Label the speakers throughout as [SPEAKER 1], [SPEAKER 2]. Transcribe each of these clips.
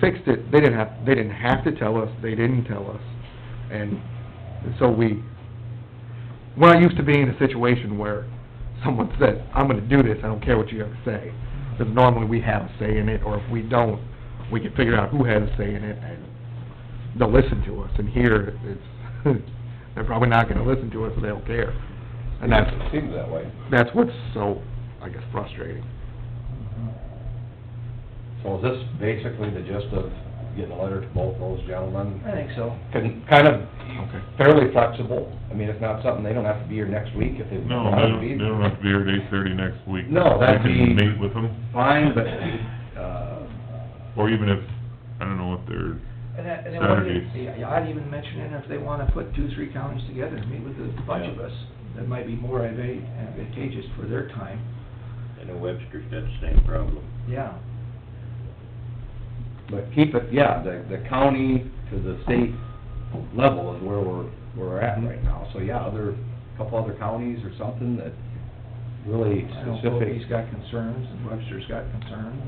[SPEAKER 1] fixed it, they didn't have, they didn't have to tell us, they didn't tell us. And so we, we're not used to being in a situation where someone says, I'm gonna do this, I don't care what you have to say. Because normally we have a say in it, or if we don't, we can figure out who has a say in it, and they'll listen to us. And here, it's, they're probably not gonna listen to us, so they don't care. And that's,
[SPEAKER 2] It seems that way.
[SPEAKER 1] that's what's so, I guess, frustrating.
[SPEAKER 2] So is this basically the gist of getting a letter to both those gentlemen?
[SPEAKER 3] I think so.
[SPEAKER 2] Can, kind of
[SPEAKER 1] Okay.
[SPEAKER 2] fairly flexible. I mean, it's not something, they don't have to be here next week if they
[SPEAKER 4] No,
[SPEAKER 2] don't
[SPEAKER 4] they
[SPEAKER 2] want to
[SPEAKER 4] don't,
[SPEAKER 2] be.
[SPEAKER 4] they don't have to be here at eight thirty next week.
[SPEAKER 2] No, that'd
[SPEAKER 4] We can
[SPEAKER 2] be-
[SPEAKER 4] meet with them,
[SPEAKER 2] Fine, but, uh,
[SPEAKER 4] or even if, I don't know if they're,
[SPEAKER 3] And that, and then what if-
[SPEAKER 4] Saturdays.
[SPEAKER 3] yeah, I'd even mention it, if they wanna put two, three counties together and meet with a bunch of us, that might be more adva- advantageous for their time,
[SPEAKER 5] I know Webster's got the same problem.
[SPEAKER 3] yeah.
[SPEAKER 2] but keep it, yeah, the, the county to the state level is where we're, where we're at right now. So, yeah, other, couple other counties or something that really
[SPEAKER 3] I don't know if
[SPEAKER 2] specific,
[SPEAKER 3] he's got concerns, and Webster's got concerns.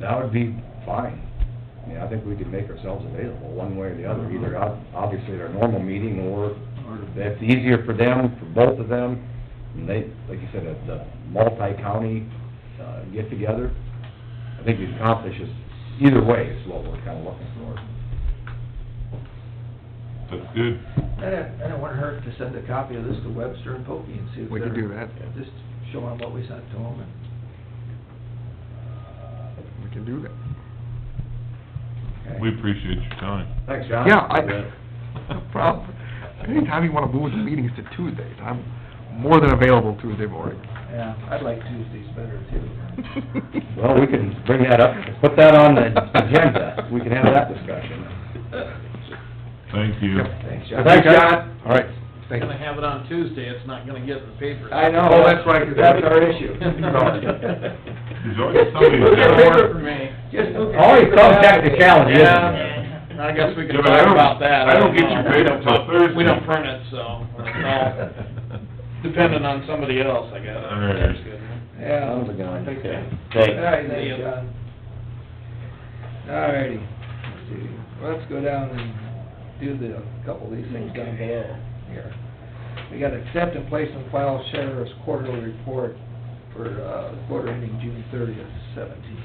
[SPEAKER 2] that would be fine. I mean, I think we could make ourselves available one way or the other, either ob- obviously at our normal meeting or
[SPEAKER 3] Or
[SPEAKER 2] that's easier for them, for both of them, and they, like you said, at the multi-county, uh, get-together, I think we accomplish this, either way is what we're kinda looking for.
[SPEAKER 4] that's good.
[SPEAKER 3] And it, and it wouldn't hurt to send a copy of this to Webster and Pokie and see if they're...
[SPEAKER 1] We could do that.
[SPEAKER 3] Just show them what we sent to them and,
[SPEAKER 1] We can do that.
[SPEAKER 2] Okay.
[SPEAKER 4] We appreciate your time.
[SPEAKER 2] Thanks, John.
[SPEAKER 1] Yeah, I, no problem. Anytime you wanna move the meetings to Tuesdays, I'm more than available Tuesday morning.
[SPEAKER 3] yeah, I'd like Tuesdays better too.
[SPEAKER 2] Well, we can bring that up, put that on the agenda, we can have that discussion.
[SPEAKER 4] Thank you.
[SPEAKER 3] Thanks, John.
[SPEAKER 2] Thanks, John.
[SPEAKER 1] All right, thanks.
[SPEAKER 6] gonna have it on Tuesday, it's not gonna get in the paper.
[SPEAKER 3] I know.
[SPEAKER 1] Oh, that's right, 'cause
[SPEAKER 3] That's our issue.
[SPEAKER 4] There's always somebody
[SPEAKER 3] Look at
[SPEAKER 4] that's
[SPEAKER 3] paper
[SPEAKER 4] got
[SPEAKER 3] for
[SPEAKER 4] work.
[SPEAKER 3] me. Just look at
[SPEAKER 2] Always
[SPEAKER 3] paper
[SPEAKER 2] some
[SPEAKER 3] now.
[SPEAKER 2] technicality, isn't there?
[SPEAKER 6] Yeah, I guess we
[SPEAKER 4] Yeah,
[SPEAKER 6] can
[SPEAKER 4] but I
[SPEAKER 6] talk
[SPEAKER 4] don't-
[SPEAKER 6] about that.
[SPEAKER 4] I don't get
[SPEAKER 6] know.
[SPEAKER 4] your paper till Thursday.
[SPEAKER 6] We don't print it, so, it's all dependent on somebody else, I guess.
[SPEAKER 4] All right.
[SPEAKER 6] That's good.
[SPEAKER 3] Yeah.
[SPEAKER 2] Sounds like I-
[SPEAKER 3] Okay. All
[SPEAKER 5] Thanks.
[SPEAKER 3] right, thanks, John. All righty. Let's see. Let's go down and do the, a couple of these things down below here. We got accept and place and file sheriff's quarterly report for, uh, the quarter ending June thirtieth, seventeen.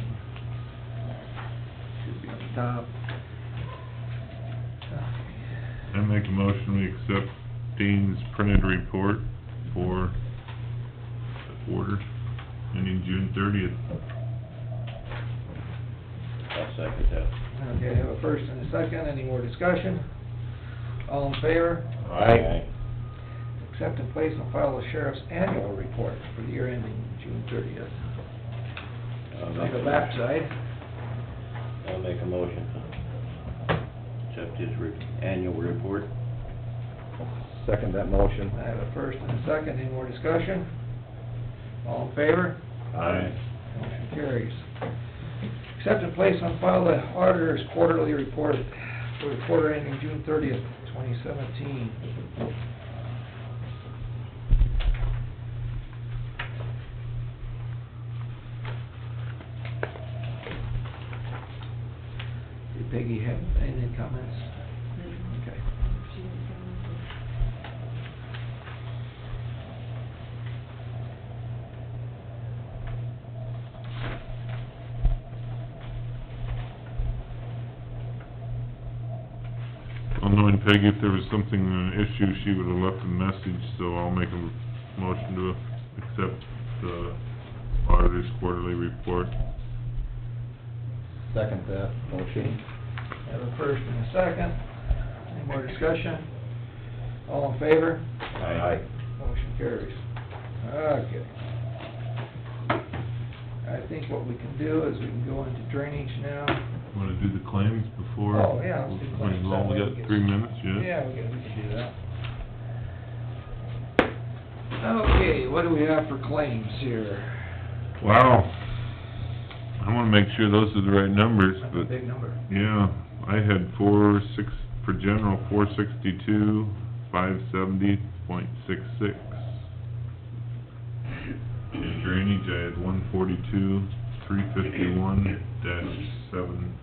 [SPEAKER 3] Should be on the top.
[SPEAKER 4] I make a motion, we accept Dean's printed report for the quarter, ending June thirtieth.
[SPEAKER 5] I'll second that.
[SPEAKER 3] Okay, I have a first and a second. Any more discussion? All in favor?
[SPEAKER 2] Aye.
[SPEAKER 3] Accept and place and file the sheriff's annual report for the year ending June thirtieth.
[SPEAKER 5] I'll
[SPEAKER 3] On
[SPEAKER 5] make
[SPEAKER 3] the
[SPEAKER 5] a motion.
[SPEAKER 3] backside,
[SPEAKER 5] I'll make a motion to accept his re- annual report.
[SPEAKER 2] Second that motion.
[SPEAKER 3] I have a first and a second, any more discussion? All in favor? Motion carries. Accept and place on file the auditor's quarterly report for the quarter ending June thirtieth, twenty seventeen. Did Peggy have any comments? Okay.
[SPEAKER 4] Well, knowing Peggy, if there was something, an issue, she would have left a message, so I'll make a motion to accept the auditor's quarterly report.
[SPEAKER 2] Second that motion.
[SPEAKER 3] Have a first and a second. Any more discussion? All in favor?
[SPEAKER 2] Aye.
[SPEAKER 3] Motion carries. Okay. I think what we can do is we can go into drainage now.
[SPEAKER 4] Wanna do the claims before?
[SPEAKER 3] Oh, yeah, let's do claims.
[SPEAKER 4] We've only got three minutes, yeah?
[SPEAKER 3] Yeah, we can, we can do that. Okay, what do we have for claims here?
[SPEAKER 4] Wow. I wanna make sure those are the right numbers,
[SPEAKER 3] That's a
[SPEAKER 4] but,
[SPEAKER 3] big number.
[SPEAKER 4] yeah, I had four six, for general, four sixty-two, five seventy point six six. Drainage, I had one forty-two, three fifty-one dash seven